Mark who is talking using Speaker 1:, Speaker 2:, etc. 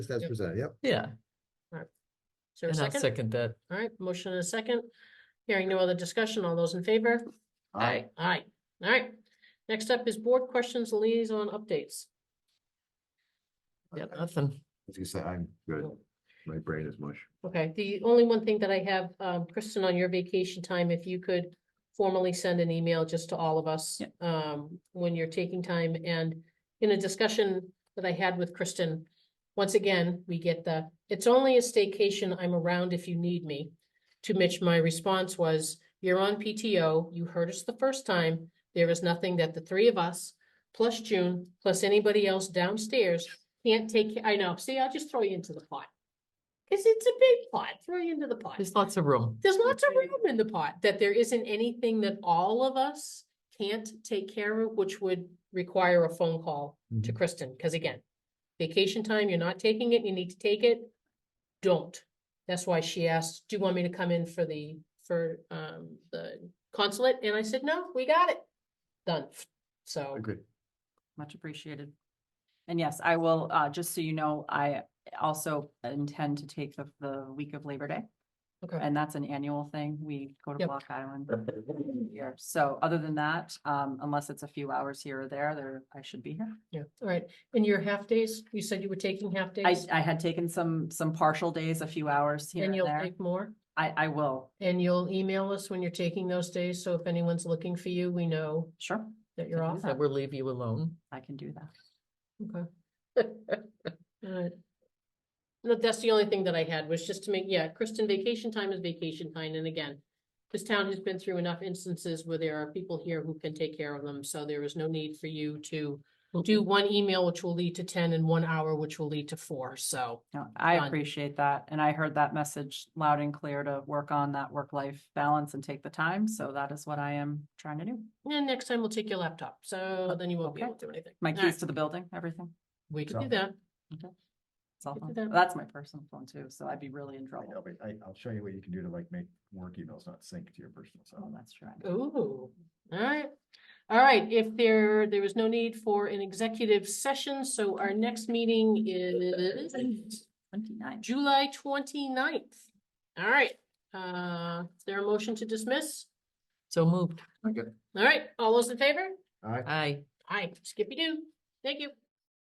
Speaker 1: Just as
Speaker 2: Yep.
Speaker 1: presented, yep.
Speaker 3: Yeah,
Speaker 2: Is there a
Speaker 3: and I'll
Speaker 2: second?
Speaker 3: second that.
Speaker 2: All right, motion and a second. Hearing no other discussion. All those in favor?
Speaker 3: I,
Speaker 2: Aye. All right. Next up is board questions, liaison updates.
Speaker 3: yeah, nothing.
Speaker 1: As you said, I'm good.
Speaker 2: Cool.
Speaker 1: My brain is mush.
Speaker 2: Okay, the only one thing that I have, um, Kristen, on your vacation time, if you could formally send an email just to all of us,
Speaker 3: Yeah.
Speaker 2: um, when you're taking time and in a discussion that I had with Kristen, once again, we get the, it's only a staycation, I'm around if you need me. To which my response was, you're on PTO, you heard us the first time, there is nothing that the three of us, plus June, plus anybody else downstairs can't take, I know, see, I'll just throw you into the pot. Cause it's a big pot, throw you into the pot.
Speaker 3: There's lots of room.
Speaker 2: There's lots of room in the pot, that there isn't anything that all of us can't take care of, which would require a phone call
Speaker 4: Mm-hmm.
Speaker 2: to Kristen, because again, vacation time, you're not taking it, you need to take it, don't. That's why she asked, do you want me to come in for the, for, um, the consulate? And I said, no, we got it, done. So,
Speaker 1: Agreed.
Speaker 4: Much appreciated. And yes, I will, uh, just so you know, I also intend to take the, the week of Labor Day.
Speaker 2: okay,
Speaker 4: And that's an annual thing. We go to
Speaker 2: Yep.
Speaker 4: Block Island. every year. So other than that, um, unless it's a few hours here or there, there, I should be here.
Speaker 2: yeah, all right. And your half days, you said you were taking half
Speaker 4: I,
Speaker 2: days?
Speaker 4: I had taken some, some partial days, a few hours here
Speaker 2: And
Speaker 4: and
Speaker 2: you'll
Speaker 4: there.
Speaker 2: take more?
Speaker 4: I, I will,
Speaker 2: And you'll email us when you're taking those days, so if anyone's looking for you, we know
Speaker 4: sure,
Speaker 2: that you're off.
Speaker 3: I
Speaker 4: Yeah.
Speaker 3: will leave you alone.
Speaker 4: I can do that.
Speaker 2: Okay. Alright. No, that's the only thing that I had was just to make, yeah, Kristen, vacation time is vacation time, and again. This town has been through enough instances where there are people here who can take care of them, so there is no need for you to. Do one email, which will lead to ten, and one hour, which will lead to four, so.
Speaker 4: No, I
Speaker 2: Done.
Speaker 4: appreciate that. And I heard that message loud and clear to work on that work-life balance and take the time. So that is what I am trying to do.
Speaker 2: And next time we'll take your laptop, so then you won't be
Speaker 4: Oh, Okay.
Speaker 2: able to do anything.
Speaker 4: My
Speaker 2: Alright,
Speaker 4: keys to the building, everything.
Speaker 2: We can do
Speaker 1: So-
Speaker 2: that.
Speaker 4: cell
Speaker 2: Look
Speaker 4: phone.
Speaker 2: at that.
Speaker 4: That's my personal phone too, so I'd be really in
Speaker 5: I know,
Speaker 4: trouble.
Speaker 5: but I, I'll show you what you can do to like make work emails not sync to your personal cell.
Speaker 4: Oh, that's true. I know.
Speaker 2: Ooh, all right. All right, if there, there is no need for an executive session, so our next meeting is
Speaker 4: Twenty-nine.
Speaker 2: July 29th. All right, uh, is there a motion to dismiss?
Speaker 3: So moved.
Speaker 2: All right, all those in favor?
Speaker 1: All right.
Speaker 3: I.
Speaker 2: Aye, Skippy doo. Thank you.